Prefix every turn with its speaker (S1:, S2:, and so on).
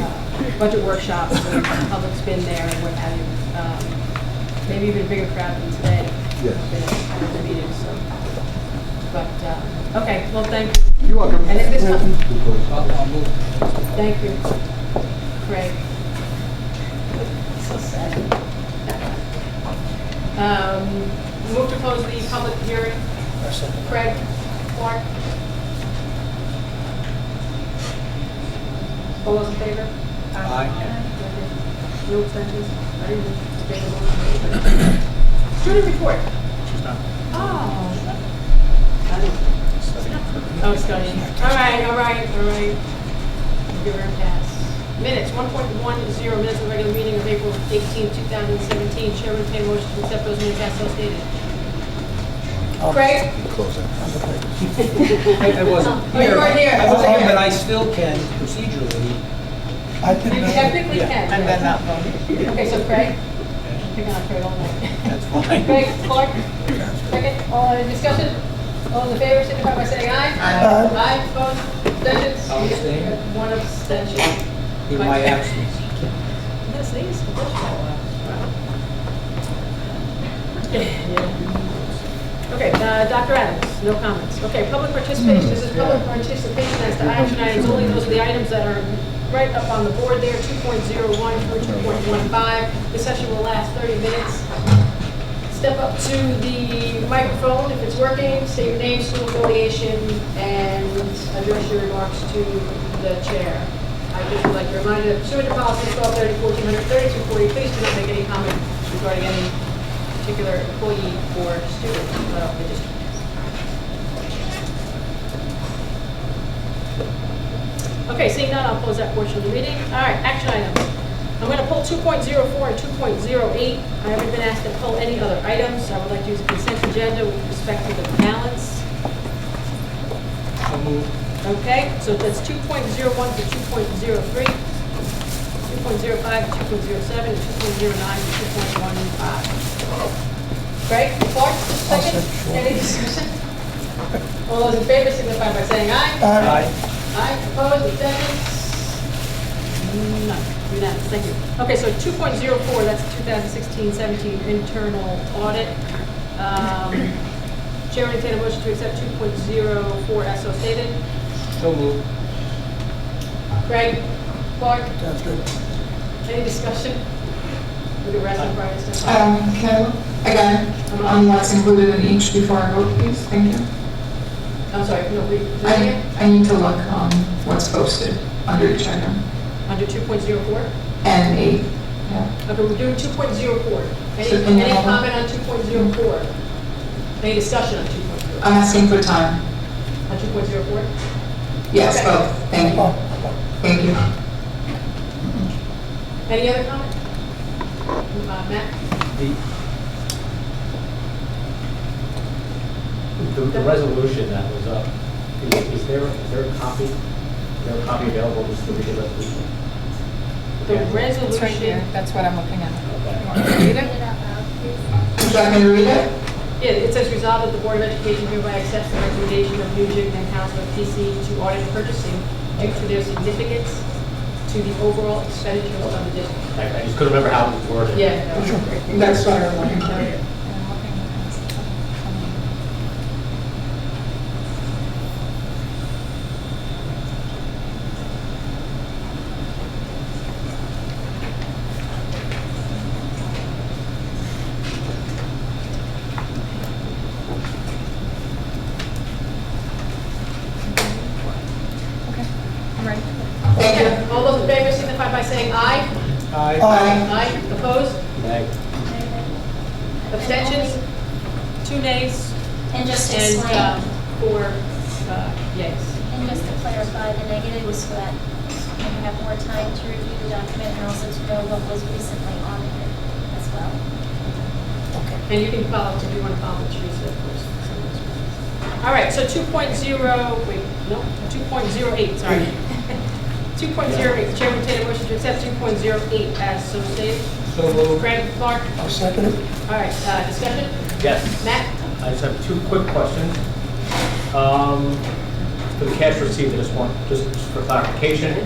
S1: uh, budget workshops where the public's been there and what have you. Um, Maybe even a bigger crowd than today.
S2: Yes.
S1: Been at the meeting, so. But, uh, okay, well, thank, you.
S2: You're welcome.
S1: And at this time-
S3: I'll, I'll move.
S1: thank you, Craig. So sad. Um, Move to close the public hearing.
S3: Our second.
S1: Craig, Clark. All those in favor? Aye. No extensions? I didn't take a vote. Student report.
S3: She's not.
S1: Oh. Oh, Scotty. All right, all right, all right. We'll Give her a pass. Minutes, 1.10 minutes of regular meeting of April 18, 2017. Chairman entertain motion to accept those minutes as so stated. Craig?
S2: Close that.
S3: I I wasn't
S1: Oh, you
S3: here.
S1: weren't here.
S3: I wasn't
S1: Okay.
S3: here, but I still can procedurally.
S2: I
S1: You technically can.
S4: And
S3: uh,
S4: then
S1: yes.
S4: not voting.
S1: Okay, so Craig? Pick on Craig all night.
S3: That's fine.
S1: Craig, Clark, second, all in discussion, all in favor, signify by saying aye.
S4: Aye.
S1: Aye, opposed, abstentions?
S3: I'll abstain.
S1: One abstention.
S3: In my absence.
S1: Yes, these, the bush Okay, uh, Dr. Adams, no comments. Okay, public
S3: Hmm.
S1: participation, this is public participation as to action items, only those are the items that are right up on the board there, 2.01 through 2.15. This session will last 30 minutes. Step up to the microphone if it's working, state your name, school affiliation, and address your remarks to the chair. I just would like to remind you, that pursuant to policy 1230, 1430, 240, please do not make any comment regarding any particular employee or student of the district. Okay, seeing none, I'll close that portion of the meeting. All right, action items. I'm going to pull 2.04 and 2.08. I haven't been asked to pull any other items. I would like to use a consent agenda with respect to the balance.
S3: I'll move.
S1: Okay, so that's 2.01 to 2.03, 2.05 to 2.07, and 2.09 to 2.15. Craig, Clark, second? Any discussion? All those in favor signify by saying aye.
S3: Aye.
S1: Aye, opposed, abstentions? None, unanimous, thank you. Okay, so 2.04, that's 2016-17 internal audit. Um, Chair will entertain a motion to accept 2.04 as so stated.
S3: So move.
S1: Craig, Clark,
S2: Sounds good.
S1: any discussion? We can rest on Brian's stuff.
S4: Um, Can, again, on what's included in each before I vote, please, thank you.
S1: I'm sorry, no, we,
S4: I, I need to look on what's posted under each item.
S1: under 2.04?
S4: And eight, yeah.
S1: Okay, we're doing 2.04.
S4: So,
S1: Any,
S4: and
S1: any
S4: then-
S1: comment on 2.04? Any discussion on 2.04?
S4: I'm asking for time.
S1: On 2.04?
S4: Yes,
S1: Okay.
S4: both, thank you. Thank you.
S1: Any other comment? Uh, Matt?
S5: The, the- the resolution that was up, is is there, is there a copy, is there a copy available, just to read the resolution?
S1: The
S4: It's right
S5: Yeah.
S4: here,
S1: resolution,
S4: that's what I'm looking at.
S5: Okay.
S4: Read it? Would you like me to read it?
S1: yeah, it says resolved that the Board of Education hereby accepts the recommendation of Nugent and House of PC to audit purchasing due to their significance to the overall expenditures of the district.
S5: I I just couldn't remember how it was worded.
S1: Yeah. no.
S4: That's what I'm looking for. Thank you.
S1: Okay, All those in favor signify by saying aye.
S2: Um,
S4: Bye.
S1: Aye. Opposed?
S5: Meg?
S1: Abstentions? Two nays?
S6: And just to
S1: And uh,
S6: explain,
S1: four uh, yays.
S6: and just to clarify, the negative was so that you have more time to review the document and also to know what was recently audited as well.
S1: And you can follow, if you want to follow Teresa, of course. All right, so 2.0, wait, no, 2.08, sorry. 2.08, Chairman Taylor motion to accept 2.08 as so stated.
S3: So move.
S1: Greg, Clark,
S2: I'll second it.
S1: all right, uh, discussion?
S5: Yes.
S1: Matt?
S5: I just have two quick questions. Um, For the cash received, I just want, just for clarification,